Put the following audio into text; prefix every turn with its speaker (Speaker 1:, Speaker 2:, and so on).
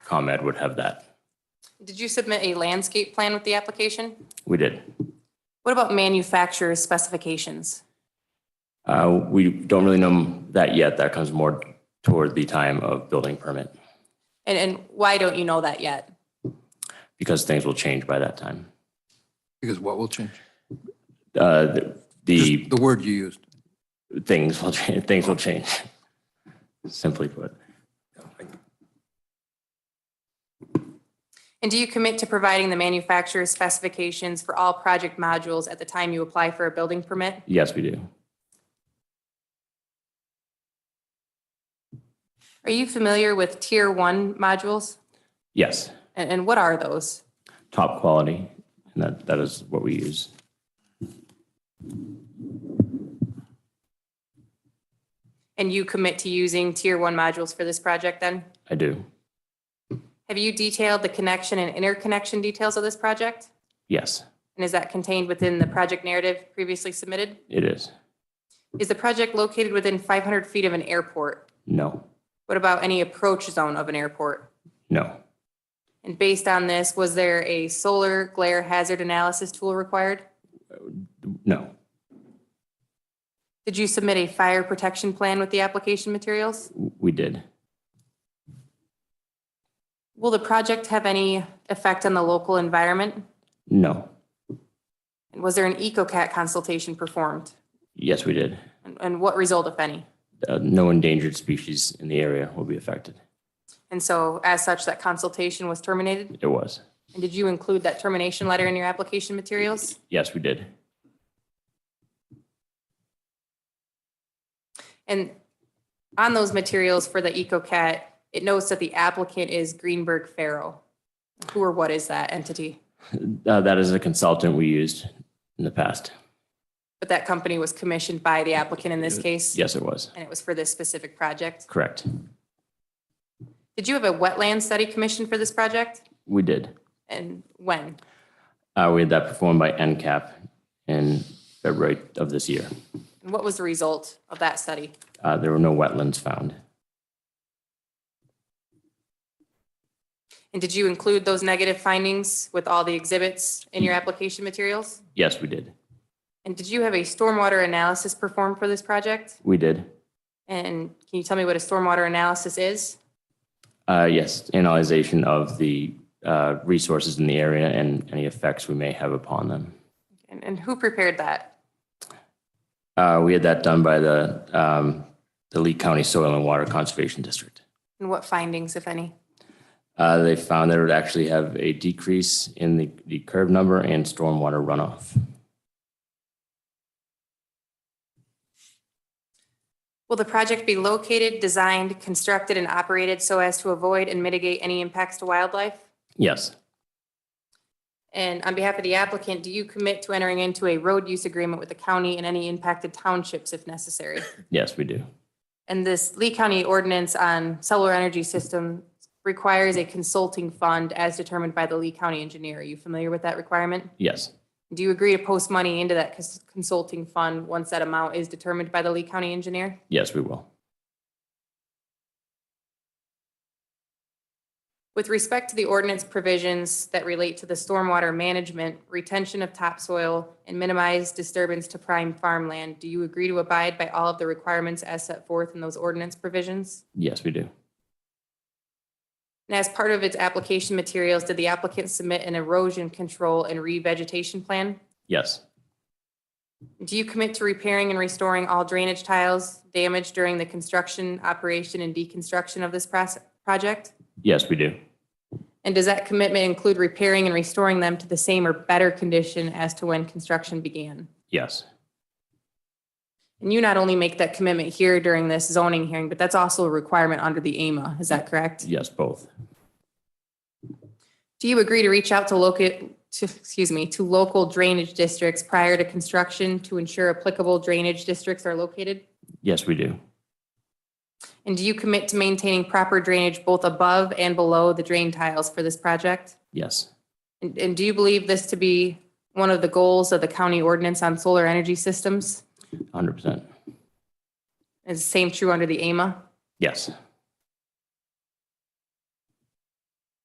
Speaker 1: ComEd would have that.
Speaker 2: Did you submit a landscape plan with the application?
Speaker 1: We did.
Speaker 2: What about manufacturer's specifications?
Speaker 1: Uh, We don't really know that yet. That comes more toward the time of building permit
Speaker 2: And, and why don't you know that yet?
Speaker 1: because things will change by that time.
Speaker 3: Because what will change?
Speaker 1: Uh, The
Speaker 3: Just
Speaker 1: the
Speaker 3: The word you used.
Speaker 1: things will, change. things will change, simply put.
Speaker 2: And do you commit to providing the manufacturer's specifications for all project modules at the time you apply for a building permit?
Speaker 1: Yes, we do.
Speaker 2: Are you familiar with tier one modules?
Speaker 1: Yes,
Speaker 2: And, and what are those?
Speaker 1: top quality, and that that is what we use.
Speaker 2: And you commit to using tier one modules for this project then?
Speaker 1: I do.
Speaker 2: Have you detailed the connection and interconnection details of this project?
Speaker 1: Yes,
Speaker 2: And is that contained within the project narrative previously submitted?
Speaker 1: it is.
Speaker 2: Is the project located within 500 feet of an airport?
Speaker 1: No,
Speaker 2: What about any approach zone of an airport?
Speaker 1: no,
Speaker 2: And based on this, was there a solar glare hazard analysis tool required?
Speaker 1: no.
Speaker 2: Did you submit a fire protection plan with the application materials?
Speaker 1: We did.
Speaker 2: Will the project have any effect on the local environment?
Speaker 1: No.
Speaker 2: And was there an EcoCat consultation performed?
Speaker 1: Yes, we did.
Speaker 2: And- And what result, if any?
Speaker 1: Uh, No endangered species in the area will be affected.
Speaker 2: And so as such, that consultation was terminated?
Speaker 1: It was.
Speaker 2: And did you include that termination letter in your application materials?
Speaker 1: Yes, we did.
Speaker 2: And on those materials for the EcoCat, it notes that the applicant is Greenberg Farrow. Who or what is that entity?
Speaker 1: Uh, That is a consultant we used in the past.
Speaker 2: But that company was commissioned by the applicant in this case?
Speaker 1: Yes, it was.
Speaker 2: And it was for this specific project?
Speaker 1: Correct.
Speaker 2: Did you have a wetland study commissioned for this project?
Speaker 1: We did.
Speaker 2: And when?
Speaker 1: Uh, We had that performed by NCAP in February of this year.
Speaker 2: And what was the result of that study?
Speaker 1: Uh, There were no wetlands found.
Speaker 2: And did you include those negative findings with all the exhibits in your application materials?
Speaker 1: Yes, we did.
Speaker 2: And did you have a stormwater analysis performed for this project?
Speaker 1: We did.
Speaker 2: And can you tell me what a stormwater analysis is?
Speaker 1: Uh, Yes, analyzation of the uh, resources in the area and any effects we may have upon them.
Speaker 2: And, and who prepared that?
Speaker 1: Uh, We had that done by the um, the Lee County Soil and Water Conservation District.
Speaker 2: And what findings, if any?
Speaker 1: Uh, They found that it would actually have a decrease in the the curve number and stormwater runoff.
Speaker 2: Will the project be located, designed, constructed, and operated so as to avoid and mitigate any impacts to wildlife?
Speaker 1: Yes,
Speaker 2: And on behalf of the applicant, do you commit to entering into a road use agreement with the county and any impacted townships if necessary?
Speaker 1: yes, we do.
Speaker 2: And this Lee County ordinance on solar energy system requires a consulting fund as determined by the Lee County engineer. Are you familiar with that requirement?
Speaker 1: Yes,
Speaker 2: Do you agree to post money into that cons- consulting fund once that amount is determined by the Lee County engineer?
Speaker 1: yes, we will.
Speaker 2: With respect to the ordinance provisions that relate to the stormwater management, retention of topsoil, and minimize disturbance to prime farmland, do you agree to abide by all of the requirements as set forth in those ordinance provisions?
Speaker 1: Yes, we do.
Speaker 2: And as part of its application materials, did the applicant submit an erosion control and revegetation plan?
Speaker 1: Yes,
Speaker 2: Do you commit to repairing and restoring all drainage tiles damaged during the construction, operation, and deconstruction of this proce- project?
Speaker 1: yes, we do.
Speaker 2: And does that commitment include repairing and restoring them to the same or better condition as to when construction began?
Speaker 1: Yes,
Speaker 2: And you not only make that commitment here during this zoning hearing, but that's also a requirement under the AMA, is that correct?
Speaker 1: yes, both.
Speaker 2: Do you agree to reach out to local, to, excuse me, to local drainage districts prior to construction to ensure applicable drainage districts are located?
Speaker 1: Yes, we do.
Speaker 2: And do you commit to maintaining proper drainage both above and below the drain tiles for this project?
Speaker 1: Yes,
Speaker 2: And, and do you believe this to be one of the goals of the county ordinance on solar energy systems?
Speaker 1: 100%.
Speaker 2: Is the same true under the AMA?
Speaker 1: Yes,